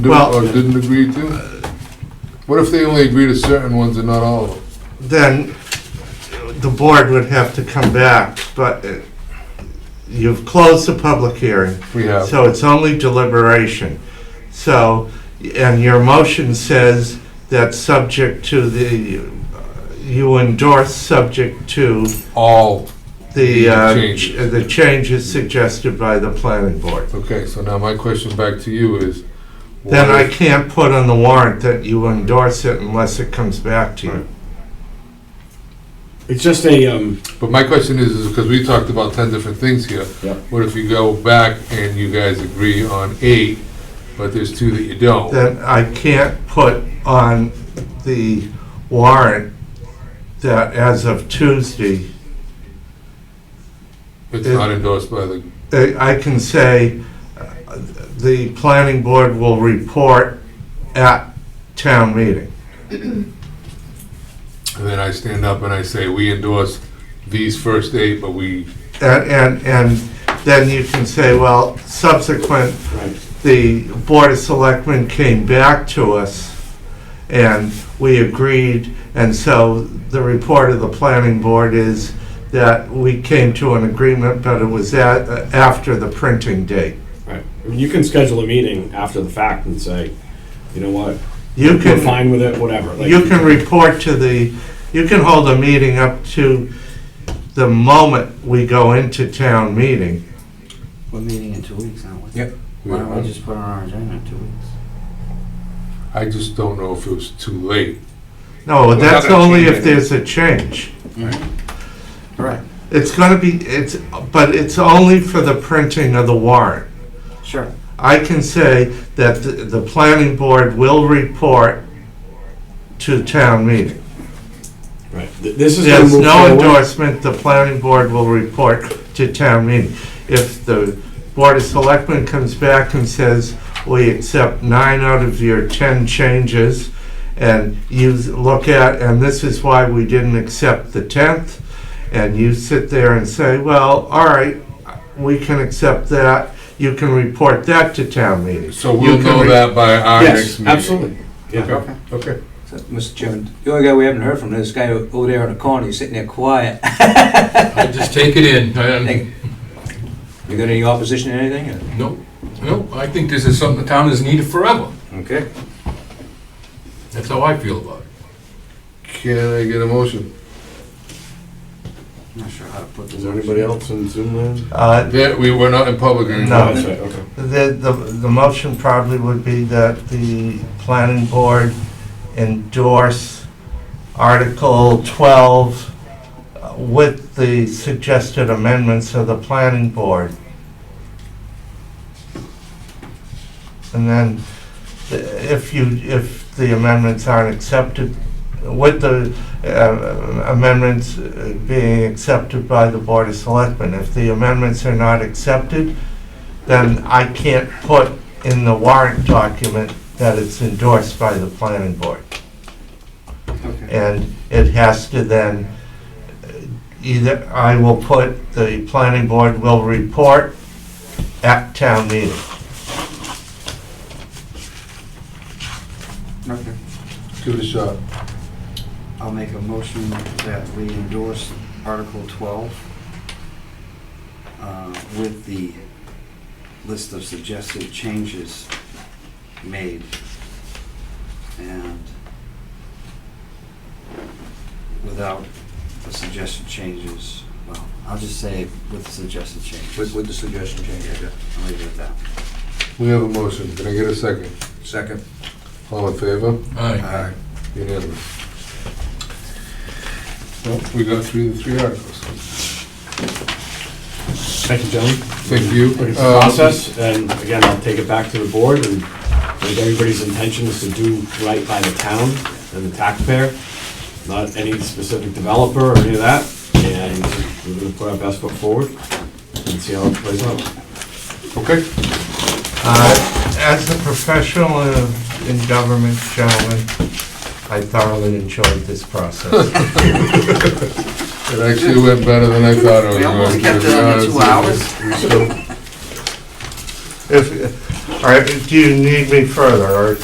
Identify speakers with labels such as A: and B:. A: do
B: Well-
A: or didn't agree to? What if they only agree to certain ones and not all of them?
B: then the board would have to come back, but uh, you've closed the public hearing.
A: We have.
B: So it's only deliberation. So, and your motion says that subject to the, you endorse subject to
A: All.
B: the, uh,
A: Change.
B: the changes suggested by the planning board.
A: Okay, so now my question back to you is.
B: Then
A: what
B: I
A: if-
B: can't put on the warrant that you endorse it unless it comes back to you.
C: It's just a, um,
A: But my question is, is because we talked about ten different things here.
C: Yep.
A: What if you go back and you guys agree on eight, but there's two that you don't?
B: that I can't put on the warrant that as of Tuesday,
A: It's not endorsed by the,
B: I I can say uh, the planning board will report at town meeting.
A: and then I stand up and I say, we endorse these first eight, but we,
B: And, and, and then you can say, well, subsequent,
C: right,
B: the board of selectmen came back to us and we agreed, and so the report of the planning board is that we came to an agreement, but it was at, uh, after the printing date.
C: right. I mean, you can schedule a meeting after the fact and say, you know what,
B: You
C: we're
B: can,
C: fine with it, whatever. like-
B: you can report to the, you can hold a meeting up to the moment we go into town meeting.
D: We're meeting in two weeks, aren't we?
E: Yep.
D: Why don't we just put on our agenda in two weeks?
A: I just don't know if it was too late.
B: No,
A: We're not
B: that's
A: gonna
B: only
A: change
B: if there's a change.
D: Right.
B: It's gonna be, it's, but it's only for the printing of the warrant.
D: Sure.
B: I can say that the, the planning board will report to town meeting.
C: Right, Th- this is. gonna
B: There's
C: move
B: no
C: forward.
B: endorsement, the planning board will report to town meeting. If the board of selectmen comes back and says, we accept nine out of your ten changes, and you look at, and this is why we didn't accept the tenth, and you sit there and say, well, all right, we can accept that, you can report that to town meeting.
A: So
B: You
A: we'll
B: can
A: know
B: re-
A: that by our next
C: Yes,
A: meeting.
C: absolutely, yeah.
A: Okay, okay.
E: So, Mr. Chairman, the only guy we haven't heard from is this guy over there in the corner, he's sitting there quiet.
F: I just take it in. I-
E: You got any opposition to anything? or-
F: No, no, I think this is something the town has needed forever.
E: Okay.
F: That's how I feel about it.
A: Can I get a motion?
D: Not sure how to put this.
C: Is there anybody else in Zoom land? Oh,
B: Uh,
A: Yeah, we were not in public anymore.
B: No.
C: That's right, okay.
B: The, the, the motion probably would be that the planning board endorse Article 12 uh, with the suggested amendments of the planning board. And then uh, if you, if the amendments aren't accepted, with the uh, amendments uh, being accepted by the Board of Selectmen, if the amendments are not accepted, then I can't put in the warrant document that it's endorsed by the planning board.
D: Okay.
B: And it has to then, uh, either, I will put, the planning board will report at town meeting.
D: Okay.
A: Give it a shot.
D: I'll make a motion that we endorse Article 12 uh, with the list of suggested changes made and without the suggested changes, well, I'll just say with the suggested
E: With,
D: changes.
E: with the suggestion change, yeah.
D: I'll leave it at that.
A: We have a motion. Can I get a second?
E: Second.
A: All in favor?
F: Aye.
D: All right.
A: Unanimous. Well, we got through the three articles.
C: Thank you, gentlemen.
A: Thank you.
C: It's a
A: Um,
C: process, and again, I'll take it back to the board, and if everybody's intention is to do right by the town and the taxpayer, not any specific developer or any of that, and we're gonna put our best foot forward and see how it plays out.
A: Okay.
B: Uh, As a professional in- in government, gentlemen, I thoroughly enjoyed this process.
A: It actually went better than I thought it was
D: We
A: going to.
D: almost kept
A: to
D: it
A: be
D: under two
A: honest with you. So,
B: If, All right, do you need me further, or